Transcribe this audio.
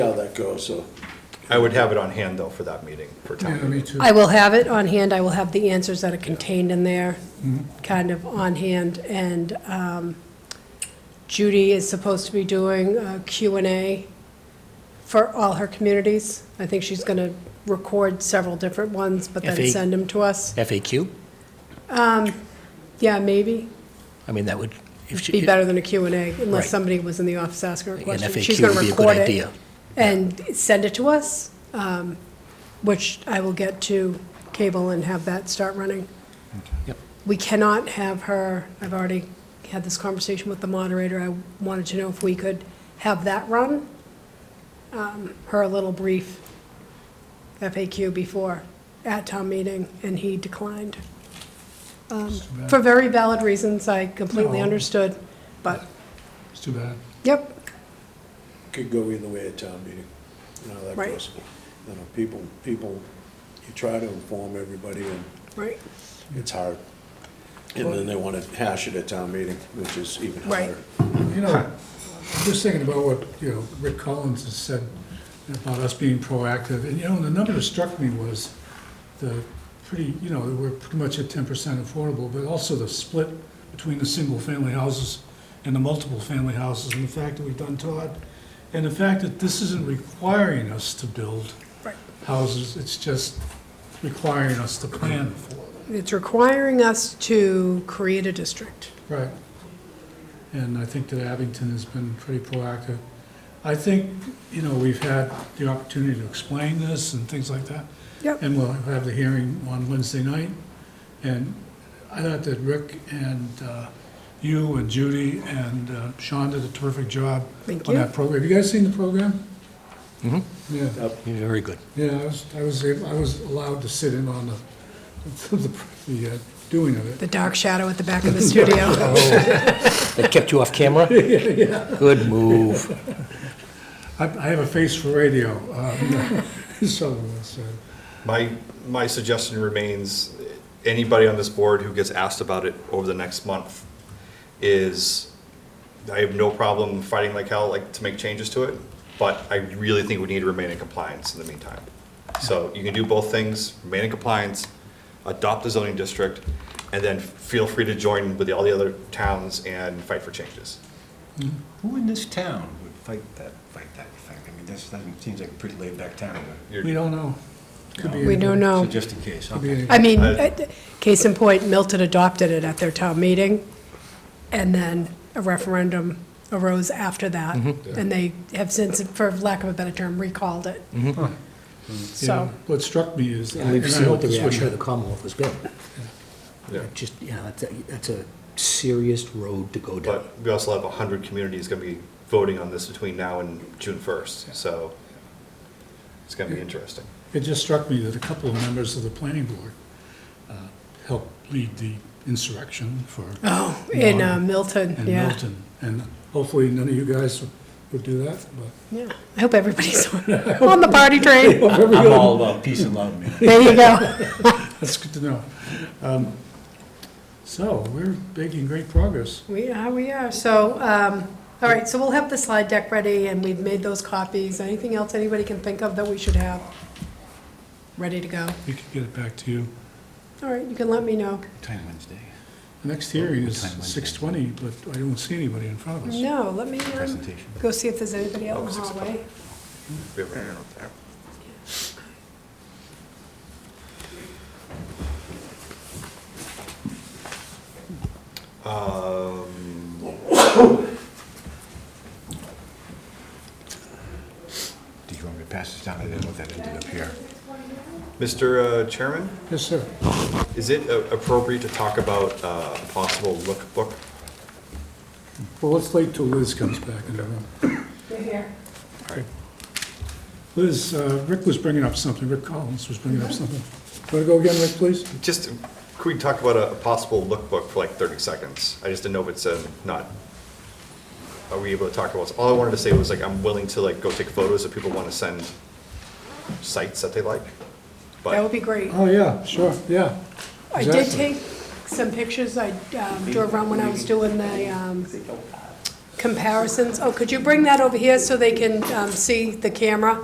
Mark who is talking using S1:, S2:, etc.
S1: how that goes, so.
S2: I would have it on hand, though, for that meeting, for
S3: Yeah,
S2: town
S3: me
S2: meeting.
S3: too.
S4: I will have it on hand, I will have the answers that are contained in there, kind of on hand, and um, Judy is supposed to be doing a Q and A for all her communities. I think she's going to record several different ones, but then
S5: FE.
S4: send them to us.
S5: FAQ?
S4: Yeah, maybe,
S5: I mean, that would, if she,
S4: be better than a Q and A, unless
S5: Right.
S4: somebody was in the office asking her a
S5: An
S4: question.
S5: FAQ
S4: She's gonna
S5: would be a good
S4: record it
S5: idea.
S4: And send it to us, um, which I will get to cable and have that start running.
S5: Yep.
S4: We cannot have her, I've already had this conversation with the moderator, I wanted to know if we could have that run, um, her little brief FAQ before at town meeting, and he declined. Um, For very valid reasons, I completely
S3: No.
S4: understood, but,
S3: It's too bad.
S4: yep,
S1: Could go either way at town meeting, you know, how that
S4: Right.
S1: goes. You know, people, people, you try to inform everybody and
S4: right,
S1: it's hard. And then they want to hash it at town meeting, which is even
S4: Right.
S1: harder.
S3: You know, I'm just thinking about what, you know, Rick Collins has said about us being proactive, and, you know, the number that struck me was the pretty, you know, we're pretty much at ten percent affordable, but also the split between the single-family houses and the multiple-family houses, and the fact that we've done Todd, and the fact that this isn't requiring us to build
S4: right.
S3: houses, it's just requiring us to plan for it.
S4: It's requiring us to create a district.
S3: Right. And I think that Abington has been pretty proactive. I think, you know, we've had the opportunity to explain this and things like that.
S4: Yep.
S3: And we'll have the hearing on Wednesday night. And I thought that Rick and uh, you and Judy and uh, Sean did a terrific job
S4: Thank
S3: on
S4: you.
S3: that program. Have you guys seen the program? Mm-hmm. Yeah.
S5: you're very good.
S3: Yeah, I was, I was, able- I was allowed to sit in on the, the, the uh, doing of it.
S4: The dark shadow at the back of the studio.
S5: That kept you off camera? Good move.
S3: I, I have a face for radio, um, so, so,
S2: My, my suggestion remains, anybody on this board who gets asked about it over the next month is, I have no problem fighting like hell, like, to make changes to it, but I really think we need to remain in compliance in the meantime. So you can do both things, remain in compliance, adopt the zoning district, and then feel free to join with all the other towns and fight for changes.
S6: Who in this town would fight that, fight that thing? I mean, this doesn't, seems like a pretty laid-back town.
S3: we don't know. Could be
S4: We
S3: anybody.
S4: don't know.
S6: So just in case,
S3: Could be
S6: okay.
S3: any-
S4: I mean,
S2: I-
S4: uh, case in point, Milton adopted it at their town meeting, and then a referendum arose after that, and they have since, for lack of a better term, recalled it.
S3: Yeah,
S4: So,
S3: What struck me is, and
S5: And
S3: I
S5: we've seen
S3: hope
S5: what the
S3: this
S5: reaction of
S3: would,
S5: the Commonwealth has been.
S2: Yeah.
S5: Just, you know, that's a, that's a serious road to go down.
S2: But we also have 100 communities going to be voting on this between now and June 1st, so it's going to be interesting.
S3: it just struck me that a couple of members of the planning board, uh, helped lead the insurrection for,
S4: oh, in uh,
S3: Milton.
S4: Milton,
S3: in
S4: yeah.
S3: Milton. And hopefully none of you guys would do that, but.
S4: Yeah, I hope everybody's on the party train.
S6: I'm all about peace and love, man.
S4: There you go.
S3: That's good to know. Um, So, we're making great progress.
S4: We are, we are. So, um, all right, so we'll have the slide deck ready, and we've made those copies. Anything else anybody can think of that we should have ready to go?
S3: We could get it back to you.
S4: All right, you can let me know.
S6: Time Wednesday.
S3: The Next hearing is
S6: Time Wednesday.
S3: six twenty, but I don't see anybody in front of us.
S4: No, let me um,
S6: Presentation.
S4: go see if there's anybody out in the hallway.
S2: We have- Um,
S6: Do you want me to pass this down? I didn't know that ended up here.
S2: Mr. uh, Chairman,
S3: Yes, sir.
S2: is it uh, appropriate to talk about uh, a possible look book?
S3: Well, let's wait till Liz comes back uh, in the room.
S4: You're here.
S3: Liz, uh, Rick was bringing up something, Rick Collins was bringing up something. Want to go again, Rick, please?
S2: Just, could we talk about a a possible look book for like 30 seconds? I just didn't know if it's uh, not, are we able to talk about, all I wanted to say was like, I'm willing to like go take photos if people want to send sites that they like.
S4: That
S2: But
S4: would be great.
S3: Oh, yeah, sure, yeah.
S4: I did
S3: exactly.
S4: take some pictures I um, drove around when I was doing the um, comparisons. Oh, could you bring that over here so they can um, see the camera?